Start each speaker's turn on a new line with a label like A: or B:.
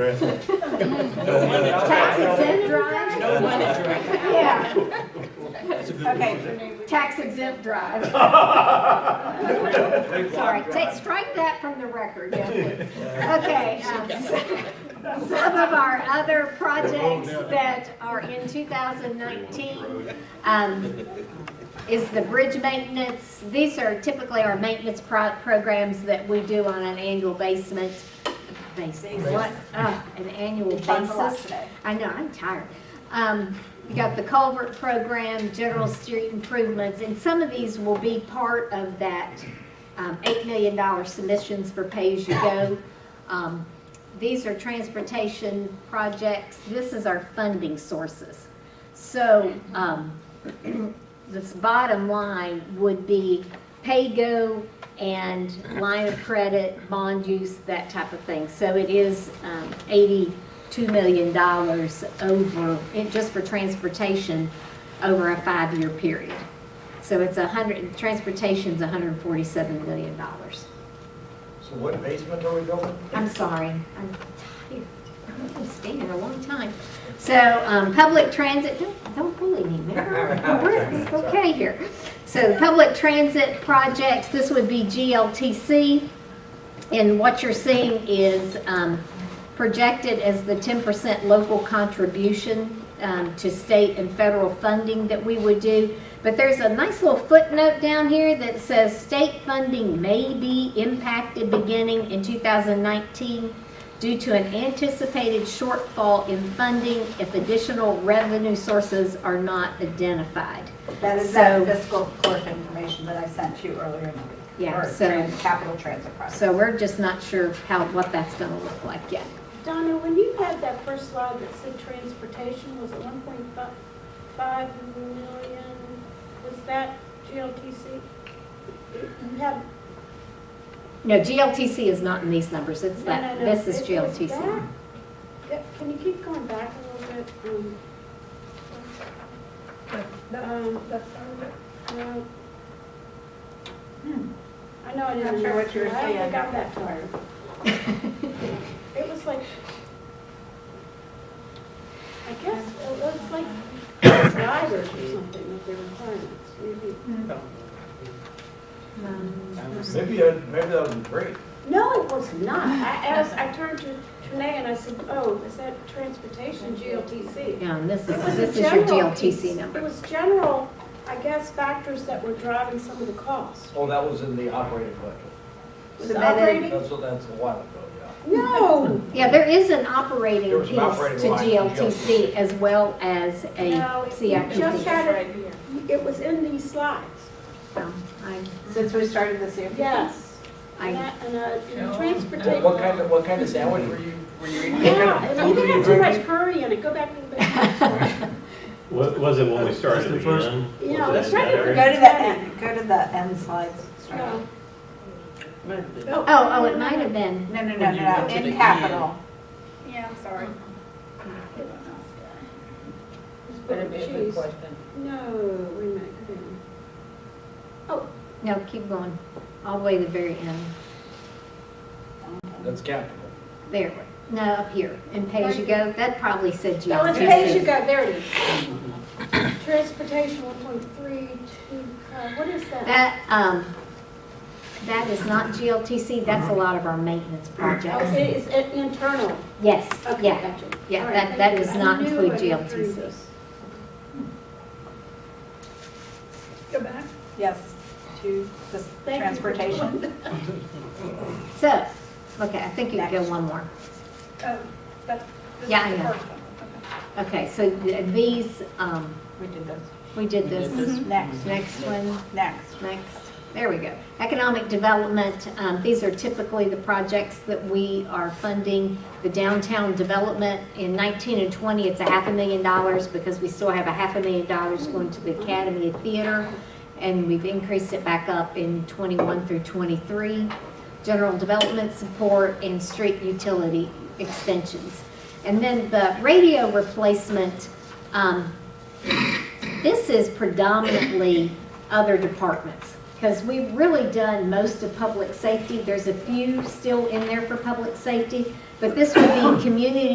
A: Right.
B: Tax exempt drive?
C: No money drive.
B: Yeah. Okay, tax exempt drive. Sorry, take, strike that from the record, yeah. Okay, um, so- some of our other projects that are in 2019, um, is the bridge maintenance. These are typically our maintenance pro- programs that we do on an annual basement, basis, what, Ah, an annual
D: Thanks a lot
B: basis.
D: today.
B: I know, I'm tired. Um, you got the culvert program, general street improvements, and some of these will be part of that, um, eight million dollar submissions for pay-as-you-go. Um, these are transportation projects. This is our funding sources. So, um, this bottom line would be pay-go and line of credit, bond use, that type of thing. So it is um, $82 million over, it- just for transportation, over a five-year period. So it's 100, transportation's $147 million.
A: So what basement are we building?
B: I'm sorry, I'm tired. I've been standing a long time. So, um, public transit, don't, don't bully me, man. We're it's okay here. So, the public transit projects, this would be GLTC. And what you're seeing is, um, projected as the ten percent local contribution, um, to state and federal funding that we would do. But there's a nice little footnote down here that says state funding may be impacted beginning in two thousand nineteen due to an anticipated shortfall in funding if additional revenue sources are not identified.
D: That is
B: So-
D: that fiscal clerk information that I sent you earlier in the week.
B: Yeah,
D: Or
B: so-
D: trans- Capital Transit Project.
B: So we're just not sure how, what that's gonna look like yet.
E: Donna, when you had that first slide that said transportation was at one point five million, was that GLTC? You had,
B: No, GLTC is not in these numbers, it's
E: no,
B: that,
E: no, no.
B: this is
E: It was
B: GLTC.
E: back. Yeah, Can you keep going back a little bit? Um, um, no. Hmm. I know I didn't.
D: Not sure what you were
E: I
D: saying.
E: only got that far. It was like, I guess it was like drivers or something with their requirements, maybe.
A: Maybe, I- maybe that was a break.
E: No, it was not. I asked, I turned to Trinae and I said, oh, is that transportation GLTC?
B: Yeah, and this
E: It
B: is,
E: was a
B: this is your
E: general piece.
B: GLTC
E: It
B: number.
E: was general, I guess, factors that were driving some of the costs.
A: Oh, that was in the operating budget.
E: Was
D: Submitted.
E: operating?
A: That's, what- that's a while ago, yeah.
E: No,
B: Yeah, there is an
A: There
B: operating
A: was
B: piece
A: an
B: to
A: operating line to
B: GLTC as well as a
E: No, it-
B: CIP
E: you just
B: piece.
E: had- it was in these slides.
B: So, um, I,
D: Since we started this year?
E: Yes. And
B: I,
E: that- and, uh, and
A: What-
E: transportation.
A: What kind of, what kind of sandwich were you, were you eating?
E: Yeah, and you
A: What were
E: didn't
A: you
E: have too much
A: drinking?
E: curry in it. Go back a little bit.
F: Wa- Was it when we started
G: the first-
F: again?
E: You know,
F: Was
E: it's
F: that
E: right at
D: Go
E: the
D: to
F: better?
D: the end, go to the end slides. Sorry.
E: No.
D: No,
B: oh, oh, it might have been,
D: no, no,
G: When you
D: no,
G: get to
D: in
G: the
D: capital.
E: Yeah, I'm sorry.
D: Mm-hmm.
E: It's better
C: Better be a good
E: cheese.
C: question.
E: No, wait a minute. come here.
B: no, keep going, all the way to the very end.
A: That's capital.
B: There, no, up here, and pay as you go, that probably said
E: That was pay as you
B: GLTC.
E: go, there it is. Transportation, one point three, two, uh, what is that?
B: That, um, that is not GLTC, that's a lot of our maintenance projects.
E: Okay, it's uh, internal.
B: Yes,
E: Okay,
B: yeah,
E: gotcha.
B: yeah,
E: All right,
B: that-
E: thank
B: that
E: you.
B: does
E: I
B: not
E: knew
B: include
E: I went through
B: GLTC.
E: this.
D: Yes, to the
E: Thank you.
D: transportation.
B: so, okay, I think you can go one more.
E: Oh,
B: Yeah, I know. Okay, so th- these, um,
D: We did this.
B: we did this,
D: Next,
B: next one,
D: next.
B: next, there we go. Economic development, um, these are typically the projects that we are funding. The downtown development in 19 and 20, it's a half a million dollars because we still have a half a million dollars going to the Academy of Theater. And we've increased it back up in 21 through 23. General development support and street utility extensions. And then the radio replacement, um, this is predominantly other departments. Because we've really done most of public safety. There's a few still in there for public safety, but this would be community